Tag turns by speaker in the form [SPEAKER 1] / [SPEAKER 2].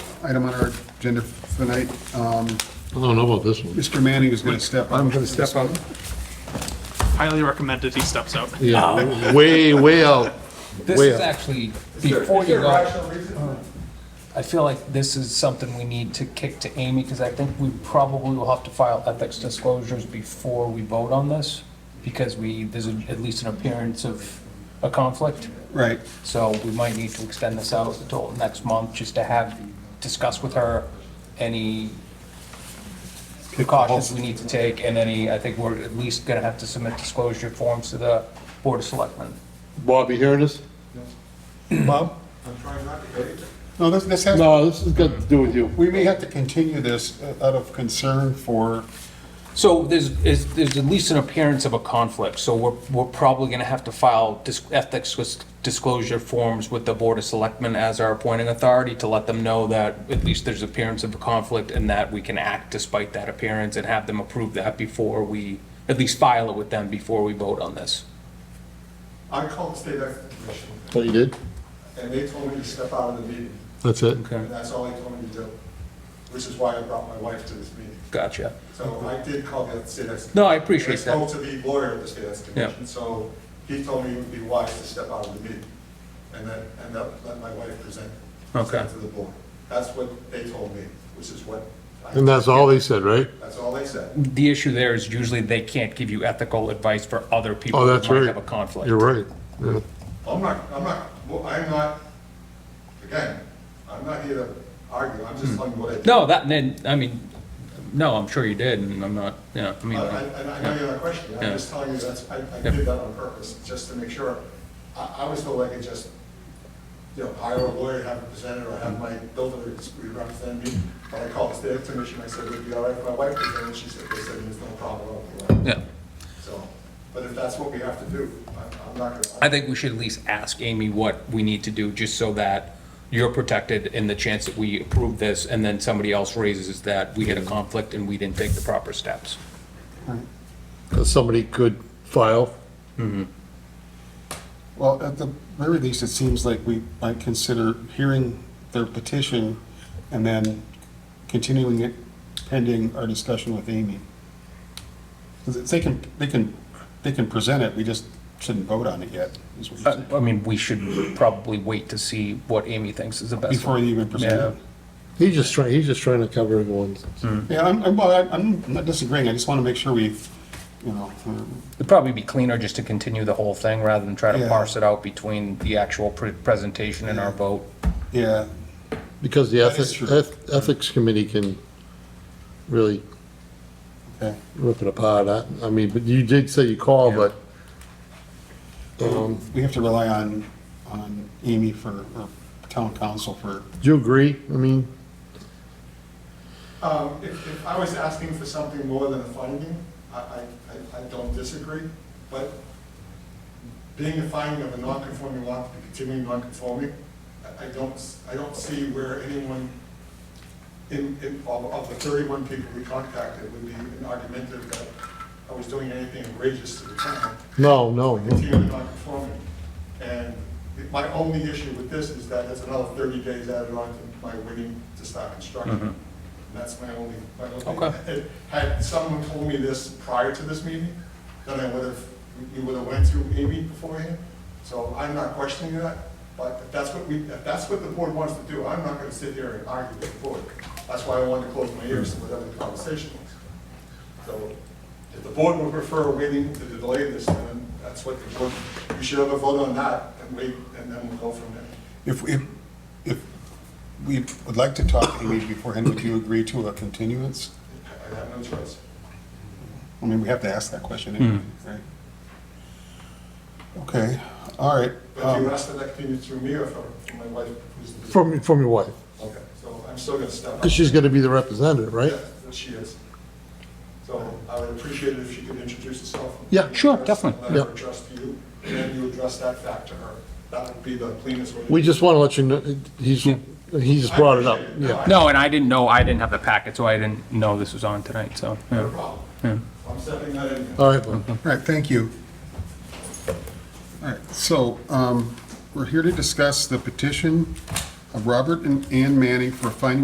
[SPEAKER 1] item on our agenda for tonight. Um,
[SPEAKER 2] I don't know about this one.
[SPEAKER 1] Mr. Manning is going to step up.
[SPEAKER 3] I'm going to step out.
[SPEAKER 4] Highly recommended he steps out.
[SPEAKER 2] Yeah, way, way out.
[SPEAKER 5] This
[SPEAKER 2] Way
[SPEAKER 5] is
[SPEAKER 2] up.
[SPEAKER 5] actually, before you go, I feel like this is something we need to kick to Amy, because I think we probably will have to file ethics disclosures before we vote on this, because we, there's a- at least an appearance of a conflict.
[SPEAKER 1] Right.
[SPEAKER 5] So we might need to extend this out until next month, just to have, discuss with her any precautions we need to take, and any, I think we're at least gonna have to submit disclosure forms to the Board of Selectmen.
[SPEAKER 2] Bob, you hearing this?
[SPEAKER 3] Bob?
[SPEAKER 1] No, this, this has,
[SPEAKER 2] No, this has got to do with you.
[SPEAKER 1] we may have to continue this uh, out of concern for,
[SPEAKER 5] So there's, is, there's at least an appearance of a conflict, so we're, we're probably gonna have to file dis- ethics dis- disclosure forms with the Board of Selectmen as our appointing authority to let them know that at least there's appearance of a conflict and that we can act despite that appearance and have them approve that before we, at least file it with them before we vote on this.
[SPEAKER 6] I called the state ethics commission,
[SPEAKER 2] Oh, you did?
[SPEAKER 6] and they told me to step out of the meeting,
[SPEAKER 2] That's it?
[SPEAKER 5] Okay.
[SPEAKER 6] and that's all they told me to do, which is why I brought my wife to this meeting.
[SPEAKER 5] Gotcha.
[SPEAKER 6] So I did call the state ethics.
[SPEAKER 5] No, I
[SPEAKER 6] And I
[SPEAKER 5] appreciate
[SPEAKER 6] spoke
[SPEAKER 5] that.
[SPEAKER 6] to the lawyer of the state ethics
[SPEAKER 5] Yeah.
[SPEAKER 6] commission, so he told me it would be wise to step out of the meeting, and then, and let let my wife present,
[SPEAKER 5] Okay.
[SPEAKER 6] present to the board. That's what they told me, which is what, I-
[SPEAKER 2] And that's all they said, right?
[SPEAKER 6] that's all they said.
[SPEAKER 5] The issue there is usually they can't give you ethical advice for other people
[SPEAKER 2] Oh, that's
[SPEAKER 5] who might
[SPEAKER 2] right.
[SPEAKER 5] have a conflict.
[SPEAKER 2] You're right. Yeah.
[SPEAKER 6] I'm not, I'm not, well, I'm not, again, I'm not here to argue, I'm just telling you what I did.
[SPEAKER 5] Mm. No, that, then, I mean, no, I'm sure you did, and I'm not, you know, I mean.
[SPEAKER 6] I, I, I know you have a question, I'm
[SPEAKER 5] Yeah.
[SPEAKER 6] just telling you that's, I, I
[SPEAKER 5] Yeah.
[SPEAKER 6] did that on purpose, just to make sure. I, I was told I could just, you know, hire a lawyer, have a presenter, or have my builder represent me. But I called the state commission, I said, would it be all right if my wife presented, and she said, they said, there's no problem. I'll do that."
[SPEAKER 5] Yeah,
[SPEAKER 6] So, but if that's what we have to do, I, I'm not gonna.
[SPEAKER 5] I think we should at least ask Amy what we need to do, just so that you're protected in the chance that we approve this, and then somebody else raises that we had a conflict and we didn't take the proper steps.
[SPEAKER 2] 'Cause somebody could file.
[SPEAKER 1] well, at the very least, it seems like we might consider hearing their petition and then continuing it pending our discussion with Amy. 'Cause it's- they can, they can, they can present it, we just shouldn't vote on it yet, is what you're
[SPEAKER 5] I,
[SPEAKER 1] saying,
[SPEAKER 5] I mean, we should probably wait to see what Amy thinks is the best.
[SPEAKER 1] before they even present it.
[SPEAKER 5] Yeah.
[SPEAKER 2] He's just trying, he's just trying to cover everyone's.
[SPEAKER 1] Yeah, I'm, I'm, well, I'm- I'm not disagreeing, I just want to make sure we, you know, uh, we're-
[SPEAKER 5] It'd probably be cleaner just to continue the whole thing, rather than try to
[SPEAKER 1] Yeah.
[SPEAKER 5] parse it out between the actual pre- presentation and our vote.
[SPEAKER 1] yeah,
[SPEAKER 2] Because the
[SPEAKER 1] That is
[SPEAKER 2] ethics,
[SPEAKER 1] true.
[SPEAKER 2] eth- ethics committee can really
[SPEAKER 1] okay.
[SPEAKER 2] rip it apart. I, I mean, but you did say you called,
[SPEAKER 5] Yeah.
[SPEAKER 2] but, um,
[SPEAKER 1] We have to rely on, on Amy for, or town council for,
[SPEAKER 2] do you agree? I mean,
[SPEAKER 6] Um, if, if I was asking for something more than a finding, I, I, I- I don't disagree, but being a finding of a non-conforming lot, to be continuing non-conforming, I, I don't, s- I don't see where anyone in, in, of, of the thirty-one people we contacted would be an argumentative that I was doing anything outrageous to the town
[SPEAKER 2] no, no, no.
[SPEAKER 6] continuing non-conforming. And my only issue with this is that it's another thirty days added on to my waiting to start construction. And that's my only, my only.
[SPEAKER 5] Okay.
[SPEAKER 6] Had someone told me this prior to this meeting, then I would have, you would have went through Amy beforehand. So I'm not questioning that, but if that's what we, if that's what the board wants to do, I'm not gonna sit here and argue with the board. That's why I wanted to close my ears to whatever the conversation was. So if the board would prefer waiting to delay this, then that's what the board, you should have a vote on that and wait, and then we'll go from there.
[SPEAKER 1] if, if, if we would like to talk to Amy beforehand, would you agree to a continuance?
[SPEAKER 6] I have no choice.
[SPEAKER 1] I mean, we have to ask that question anyway, right? Okay, all right.
[SPEAKER 6] But if you
[SPEAKER 1] um,
[SPEAKER 6] ask that that continue through me or from from my wife, who's the...
[SPEAKER 2] From, from your wife,
[SPEAKER 6] Okay, so I'm still gonna step up.
[SPEAKER 2] because she's gonna be the representative, right?
[SPEAKER 6] Yeah, that she is. So I would appreciate it if she could introduce herself.
[SPEAKER 2] Yeah,
[SPEAKER 5] sure,
[SPEAKER 6] Address-
[SPEAKER 5] definitely,
[SPEAKER 6] Let her
[SPEAKER 2] yeah.
[SPEAKER 6] address to you, and then you address that fact to her. That would be the cleanest way. to
[SPEAKER 2] We
[SPEAKER 6] do it.
[SPEAKER 2] just want to let you know, he's, he just brought it up,
[SPEAKER 6] I appreciate
[SPEAKER 2] yeah.
[SPEAKER 5] No, and I didn't know, I didn't have the packet, so I didn't know this was on tonight, so.
[SPEAKER 6] No problem. I'm stepping that in.
[SPEAKER 2] All right, Bob.
[SPEAKER 1] All right, thank you. All right, so um, we're here to discuss the petition of Robert and Ann Manning for a finding